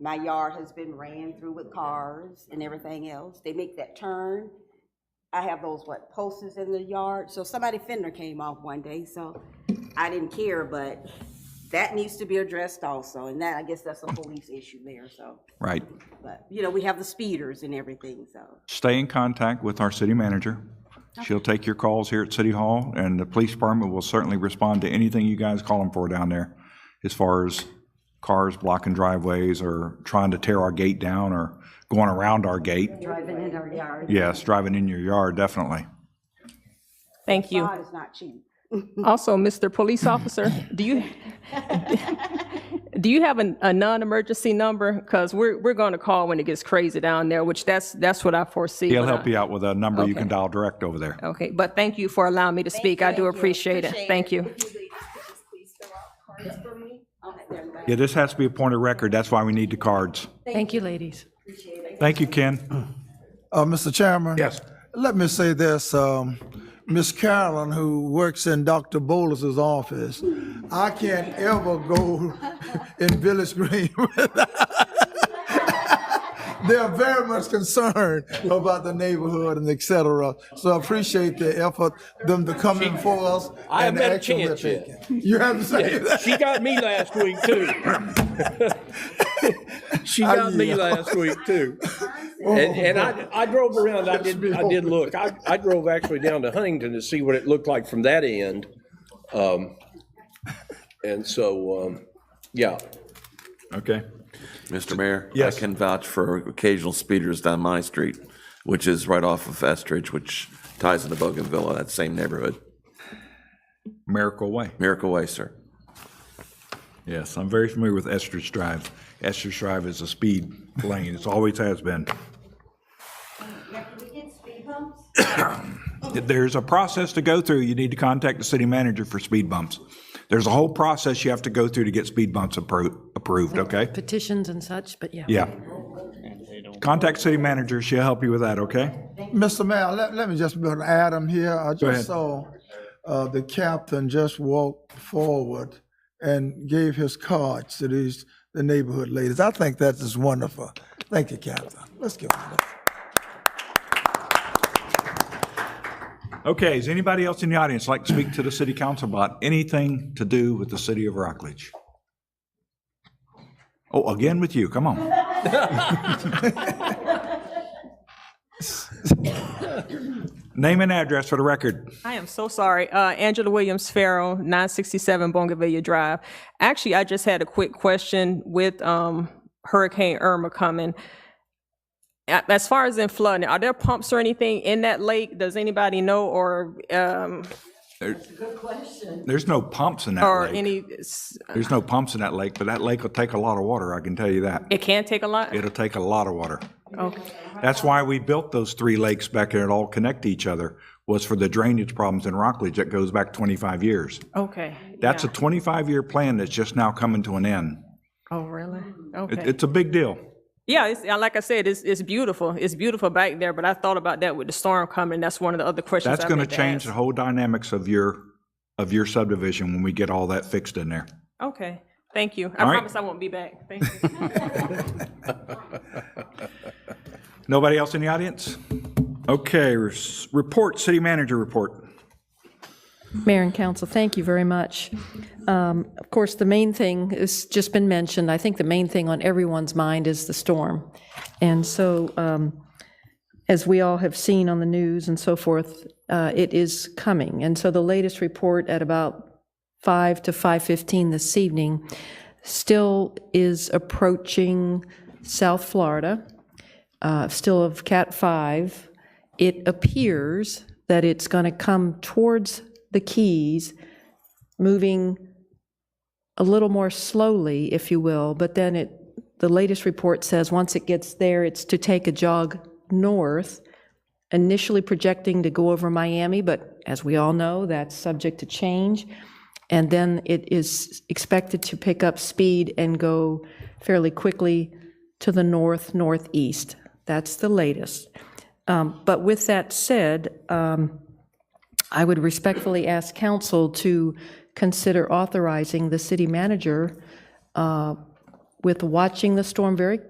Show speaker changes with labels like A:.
A: My yard has been ran through with cars and everything else. They make that turn. I have those, what, posts in the yard, so somebody fender came off one day, so I didn't care, but that needs to be addressed also, and that, I guess that's a police issue there, so.
B: Right.
A: But, you know, we have the speeders and everything, so.
B: Stay in contact with our city manager. She'll take your calls here at City Hall, and the police department will certainly respond to anything you guys call them for down there as far as cars blocking driveways or trying to tear our gate down or going around our gate.
A: Driving in our yard.
B: Yes, driving in your yard, definitely.
C: Thank you.
A: God is not cheap.
C: Also, Mr. Police Officer, do you, do you have an- a non-emergency number? Because we're, we're going to call when it gets crazy down there, which that's, that's what I foresee.
B: He'll
C: when I-
B: help you out with a number you can dial direct over there.
C: Okay, but thank you for allowing me to speak. I do appreciate it. Thank you.
B: Yeah, this has to be a point of record. That's why we need the cards.
D: Thank you, ladies.
B: Thank you,
A: Mm.
B: Ken.
E: Uh, Mr. Chairman?
B: Yes.
E: Let me say this, um, Ms. Carolyn, who works in Dr. Bolus's office, I can't ever go in Village Green. They are very much concerned about the neighborhood and et cetera. So I appreciate the effort, them to come in for us.
F: I
E: and the
F: haven't had a
E: action we're
F: chance yet.
E: taking. You haven't said that?
F: She got me last week too. she got me
E: yield.
F: last week too.
E: Oh.
F: And, and I, I drove around, I did, I did look, I, I drove actually down to Huntington to see what it looked like from that end. Um, And so, um, yeah,
B: Okay.
G: Mr. Mayor?
B: Yes.
G: I can vouch for occasional speeders down my street, which is right off of Estridge, which ties into Bogan Villa, that same neighborhood.
B: Miracle Way.
G: Miracle Way, sir.
B: Yes, I'm very familiar with Estridge Drive. Estridge Drive is a speed lane. It's always has been. There's a process to go through. You need to contact the city manager for speed bumps. There's a whole process you have to go through to get speed bumps appro- approved, okay?
D: Petitions and such, but yeah.
B: Yeah. Contact city manager. She'll help you with that, okay?
E: Mr. Mayor, let, let me just build Adam here. I
B: ahead.
E: just saw, uh, the captain just walked forward and gave his cards to these, the neighborhood ladies. I think that is wonderful. Thank you, Captain. Let's give him that.
B: Okay, is anybody else in the audience like to speak to the city council about anything to do with the city of Rockledge? Oh, again with you, come on. Name and address for the record.
C: I am so sorry. Uh, Angela Williams Farrell, 967 Bongavilla Drive. Actually, I just had a quick question with um, Hurricane Irma coming. A- As far as in flooding, are there pumps or anything in that lake? Does anybody know or, um,
B: There's no pumps in
C: or
B: that lake.
C: any, s-
B: There's no pumps in that lake, but that lake will take a lot of water, I can tell you that.
C: it can take a lot?
B: It'll take a lot of water.
C: Okay.
B: That's why we built those three lakes back there that all connect to each other, was for the drainage problems in Rockledge that goes back 25 years.
C: Okay.
B: That's a 25-year plan that's just now coming to an end.
C: Oh, really?
B: It-
C: Okay.
B: It's a big deal.
C: Yeah, it's, uh, like I said, it's, it's beautiful. It's beautiful back there, but I thought about that with the storm coming. That's one of the other questions
B: That's
C: I
B: going to
C: meant to
B: change
C: ask.
B: the whole dynamics of your, of your subdivision when we get all that fixed in there.
C: Okay, thank you. I
B: All right.
C: promise I won't be back. Thank you.
B: Nobody else in the audience? Okay, res- report, city manager report.
D: Mayor and council, thank you very much. Um, Of course, the main thing has just been mentioned. I think the main thing on everyone's mind is the storm. And so, um, as we all have seen on the news and so forth, uh, it is coming. And so the latest report at about 5 to 5:15 this evening still is approaching South Florida, uh, still of Cat 5 it appears that it's going to come towards the Keys, moving a little more slowly, if you will, but then it, the latest report says, once it gets there, it's to take a jog north, initially projecting to go over Miami, but as we all know, that's subject to change. And then it is expected to pick up speed and go fairly quickly to the north, northeast. That's the latest. Um, But with that said, um, I would respectfully ask council to consider authorizing the city manager uh, with watching the storm very